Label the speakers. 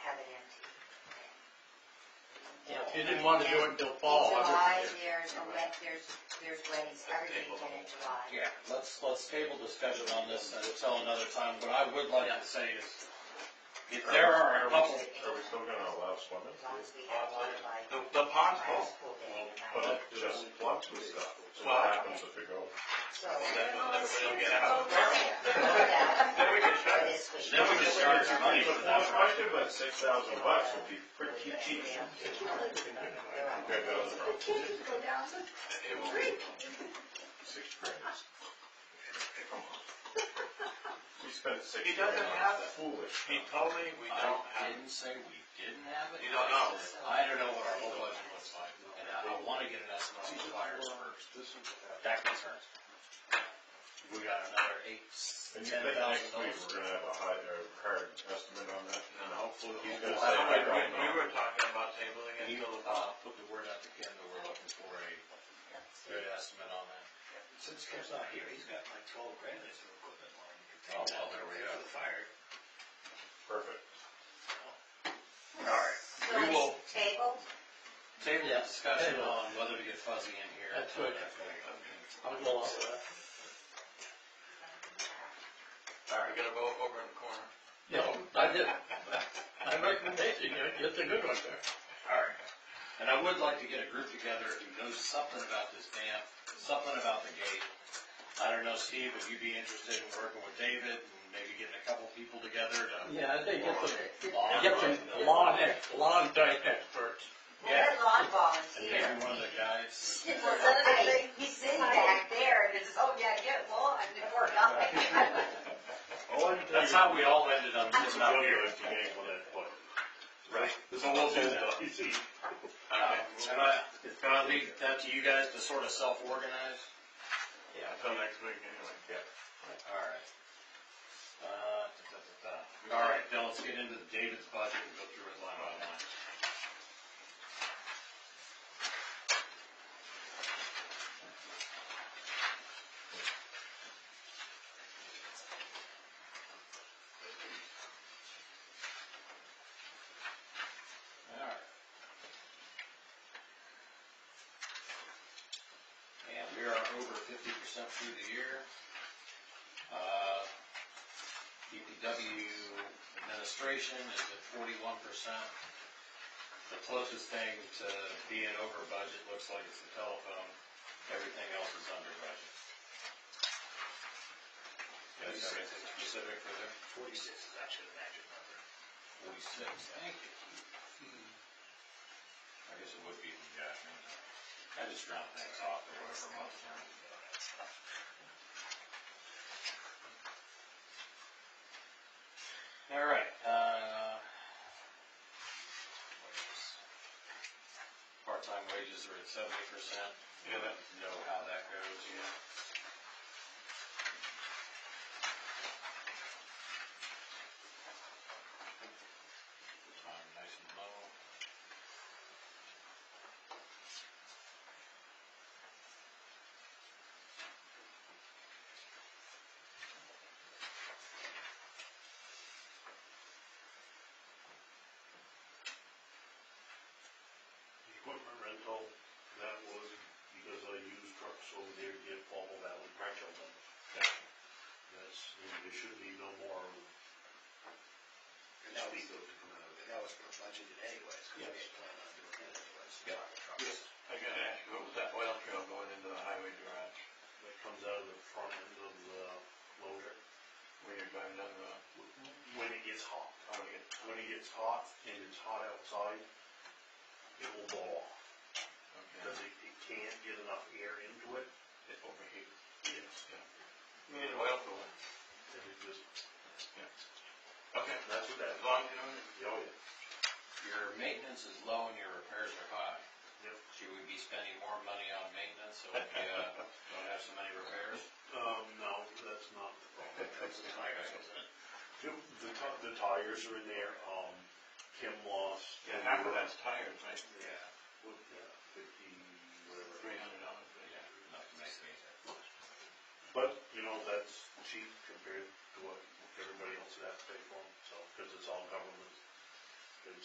Speaker 1: She didn't want to do it until fall. I
Speaker 2: July,
Speaker 1: wouldn't-
Speaker 2: there's a wet, there's, there's weddings every weekend in July.
Speaker 3: Yeah.
Speaker 4: Let's, let's table discussion on this until another time. What I would like to say is, if there are a couple,
Speaker 1: Are we still gonna allow swimming?
Speaker 2: As long as we have one by
Speaker 3: The, the pond
Speaker 2: by
Speaker 3: call,
Speaker 2: school day.
Speaker 1: But
Speaker 2: right?
Speaker 1: it just floods with stuff. So
Speaker 3: Well,
Speaker 1: what happens if we go?
Speaker 2: So.
Speaker 3: then we'll let everybody get
Speaker 2: Well,
Speaker 3: out.
Speaker 2: yeah,
Speaker 3: Then we can
Speaker 2: for
Speaker 3: shut it.
Speaker 2: this week.
Speaker 4: Then we can start our money
Speaker 1: But
Speaker 4: for that.
Speaker 1: most likely about six thousand bucks would be pretty cheap.
Speaker 2: Yeah.
Speaker 1: Okay, that was wrong.
Speaker 3: It will be
Speaker 1: Six grand. We spent six
Speaker 3: He
Speaker 1: grand
Speaker 3: doesn't have
Speaker 1: on
Speaker 3: it.
Speaker 1: foolish
Speaker 3: He
Speaker 1: stuff.
Speaker 3: told me we
Speaker 4: I
Speaker 3: don't have.
Speaker 4: didn't say we didn't have it.
Speaker 3: You don't know.
Speaker 4: I don't know what our whole budget looks like, and I I wanna get an estimate on the fires first. That concerns me. We got another eight,
Speaker 1: And you
Speaker 4: ten
Speaker 1: think
Speaker 4: thousand
Speaker 1: next week
Speaker 4: dollars.
Speaker 1: we're gonna have a high, a hard estimate on that?
Speaker 4: And hopefully,
Speaker 1: He's
Speaker 3: I
Speaker 4: we'll
Speaker 1: gonna say,
Speaker 3: don't
Speaker 4: have
Speaker 1: I
Speaker 3: know,
Speaker 1: don't
Speaker 3: we, we
Speaker 1: know.
Speaker 3: were talking about tabling it until the
Speaker 4: uh,
Speaker 3: fall.
Speaker 4: put the word out to Ken that we're looking for a good estimate on that.
Speaker 5: Since Ken's not here, he's got like twelve grand worth of equipment line.
Speaker 4: Oh, well, there we go.
Speaker 5: For the fire.
Speaker 1: Perfect.
Speaker 4: Alright.
Speaker 2: So
Speaker 4: We will-
Speaker 2: it's tabled,
Speaker 4: Table
Speaker 5: Yeah.
Speaker 4: discussion
Speaker 5: Table.
Speaker 4: on whether to get fuzzy in here.
Speaker 5: That's what- I'll go along with that.
Speaker 3: We're gonna go over in the corner.
Speaker 5: No, I did. My recommendation, you it's a good one, sir.
Speaker 4: Alright. And I would like to get a group together who knows something about this dam, something about the gate. I don't know, Steve, would you be interested in working with David and maybe getting a couple people together to?
Speaker 5: Yeah, I think get
Speaker 4: Lawn.
Speaker 5: some, get some lawn, ex- lawn type experts.
Speaker 2: we're lawn
Speaker 4: And
Speaker 2: volunteers.
Speaker 4: maybe one of the guys?
Speaker 2: Hey, He's sitting back there and it's, oh yeah, get lawn, we're nothing.
Speaker 4: That's how we all ended up
Speaker 1: It's
Speaker 4: sitting
Speaker 1: not
Speaker 4: out here.
Speaker 1: here if you ain't one that foot.
Speaker 4: Right.
Speaker 1: So we'll do that. You see,
Speaker 4: Uh, And I, can I leave that to you guys to sort of self-organize?
Speaker 3: Until next week anyway.
Speaker 4: Alright. Uh, da, da, da, da. Alright, now let's get into David's budget and go through it line by line. Alright. And we are over fifty percent through the year. Uh, DPW E administration is at forty-one percent. The closest thing to being over budget looks like it's the telephone. Everything else is under budget. Guys have anything specific for there?
Speaker 5: Forty-six is actually the magic number.
Speaker 4: Forty-six, thank you. I guess it would be the judgment. I just round things off or whatever. month we're in. All right, uh. wages. Part-time wages are at seventy percent. You don't know how that goes yet. Time nice and low.
Speaker 6: Equipment rental, that was because I used trucks over there to get Fall Valley pressure on. That's, there should be no more.
Speaker 5: And that was, that was for budgeted anyways, because we had planned on doing that anyways. Yeah.
Speaker 3: I gotta ask you, what was that oil trail going into the highway garage
Speaker 6: That comes out of the front end of the loader.
Speaker 3: when you're driving down the Oh, road?
Speaker 6: When it gets hot,
Speaker 3: I don't get,
Speaker 6: when it gets hot and it's hot outside, it will blow off.
Speaker 3: okay,
Speaker 6: Because it, it can't get enough air into it.
Speaker 3: it overheats.
Speaker 6: Yes.
Speaker 3: You need oil cooler.
Speaker 6: And it just,
Speaker 3: Okay,
Speaker 6: that's what that,
Speaker 3: as long as you don't,
Speaker 6: oh yeah.
Speaker 4: Your maintenance is low and your repairs are high.
Speaker 6: Yep.
Speaker 4: Should we be spending more money on maintenance so we, uh, don't have so many repairs?
Speaker 6: Um, no, that's not the problem. That's the tires.
Speaker 4: isn't it?
Speaker 6: The, the ti- the tires are in there, um, Kim lost.
Speaker 3: yeah, half of that's tires, right?
Speaker 4: Yeah.
Speaker 6: What, yeah, fifty,
Speaker 3: Three
Speaker 6: whatever.
Speaker 3: hundred dollars, but yeah.
Speaker 4: Not to make me.
Speaker 6: But, you know, that's cheap compared to what everybody else would have to pay for, so, cause it's all government.